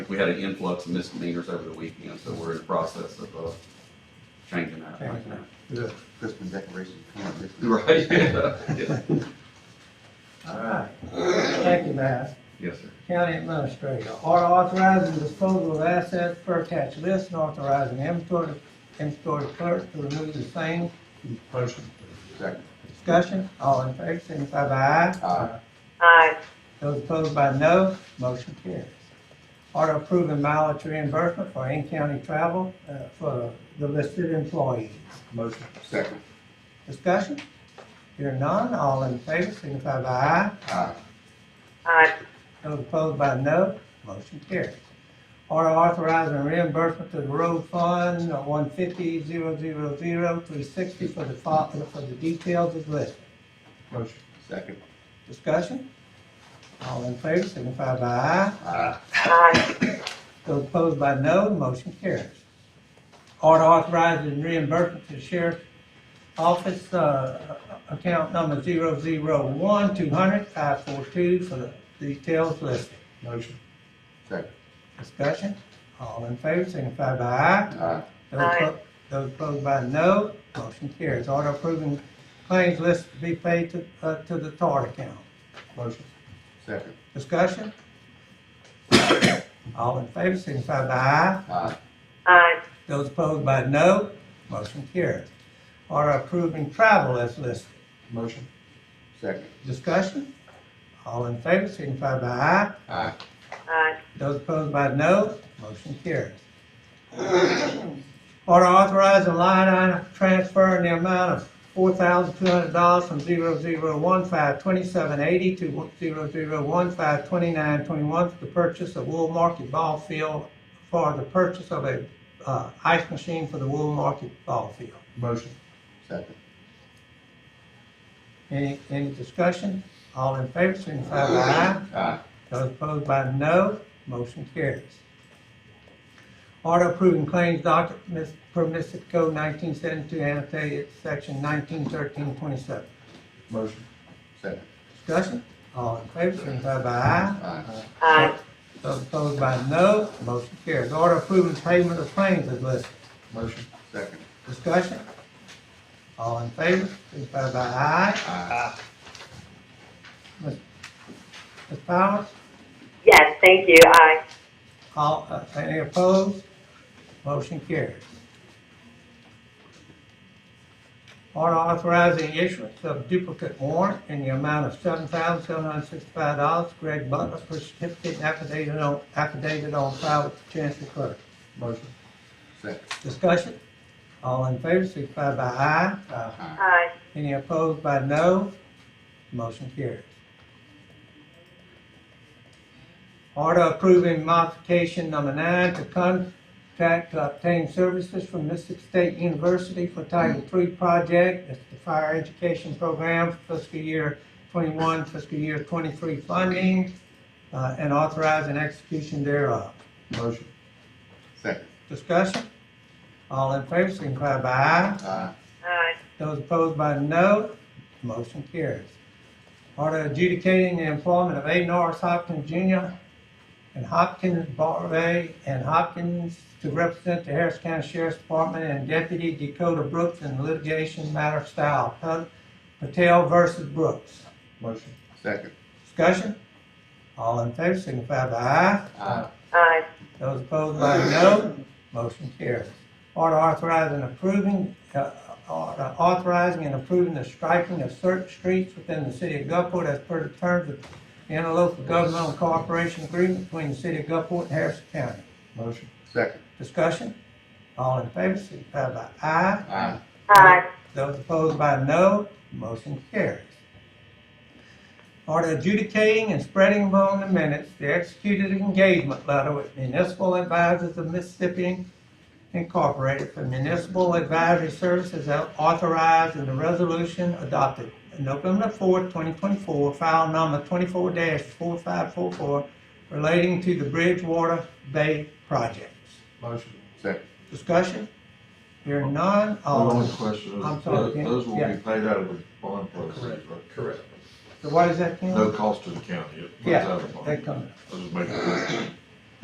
we had an influx of misdemeanors over the weekend, so we're in the process of, uh, changing that right now. Good. Christmas decorations coming this week. Right, yeah, All right. Thank you, Matt. yes, sir. County Administrator, order authorizing disposal of assets per tax list and authorizing inventory, inventory clerk to remove the same. Motion. Second. Uh, Discussion, all in favor, signify by aye. Aye. aye, Those opposed by no, motion carries. Order approving mileage reimbursement for in-county travel uh, for the listed employees. Motion. Second. Discussion? Hearing none, all in favor, signify by aye. Aye. aye, Those opposed by no, motion carries. Order authorizing reimbursement to the road fund one fifty zero zero zero three sixty for the fo- for the details as listed. Motion. Second. Discussion? All in favor, signify by aye. Aye. aye, Those opposed by no, motion carries. Order authorizing reimbursement to sheriff's office, uh, account number zero zero one two hundred five four two for the details listed. Motion. Second. Discussion, all in favor, signify by aye. Aye. Those Aye. oppo- Those opposed by no, motion carries. Order approving claims list to be paid to, uh, to the TAR account. Motion. Second. Discussion? All in favor, signify by aye. Aye. aye, Those opposed by no, motion carries. Order approving travel as listed. Motion. Second. Discussion? All in favor, signify by aye. Aye. aye, Those opposed by no, motion carries. Order authorizing line item transfer in the amount of four thousand two hundred dollars from zero zero one five twenty-seven eighty to zero zero one five twenty-nine twenty-one for the purchase of Wool Market Ball Field for the purchase of a, uh, ice machine for the Wool Market Ball Field. Motion. Second. Any, any discussion? All in favor, signify by aye. Aye. Those opposed by no, motion carries. Order approving claims docket mis- per Mississippi Code nineteen seventy-two annotated section nineteen thirteen twenty-seven. Motion. Second. Uh, Discussion? All in favor, signify by aye. Uh, Aye. aye, Those opposed by no, motion carries. Order approving payment of claims as listed. Motion. Second. Uh, Discussion? All in favor, signify by aye. Uh, Aye. Ms. Powers? yes, thank you, aye, All, uh, any opposed? Motion carries. Order authorizing issuance of duplicate warrant in the amount of seven thousand seven hundred sixty-five dollars. Greg Butler for certificate and affidavit on, affidavit on file with the Chancery Clerk. Motion. Second. Discussion? All in favor, signify by aye. Aye. Aye. aye, Any opposed by no? Motion carries. Order approving modification number nine to contract to obtain services from Mississippi State University for Title III project. It's the fire education program for fiscal year twenty-one, fiscal year twenty-three funding, uh, and authorizing execution thereof. Motion. Second. Discussion? All in favor, signify by aye. Aye. aye, Those opposed by no, motion carries. Order adjudicating the employment of A. Norris Hopkins Jr. and Hopkins Barway and Hopkins to represent the Harris County Sheriff's Department and Deputy Dakota Brooks in litigation matter of style, Pat- Patel versus Brooks. Motion. Second. Discussion? All in favor, signify by aye. Aye. aye, Those opposed by no, motion carries. Order authorizing and approving, uh, order authorizing and approving the striping of certain streets within the city of Gulfport as per the terms of the interlocal governmental cooperation agreement between the city of Gulfport and Harrison County. Motion. Second. Discussion? All in favor, signify by aye. Aye. aye, Those opposed by no, motion carries. Order adjudicating and spreading among the minutes the executed engagement letter with Municipal Advisors of Mississippi Incorporated for Municipal Advisory Services authorized in the resolution adopted November fourth, twenty twenty-four, file number twenty-four four five four four relating to the Bridgewater Bay projects. Motion. Second. Discussion? Hearing none, all in My only question is, I'm sorry, those Ken. those will be Yeah. paid out of the bond proceeds, right? Correct. So What is that, Ken? No cost to the county, it comes Yeah, out of the that bond. comes. I was just making sure.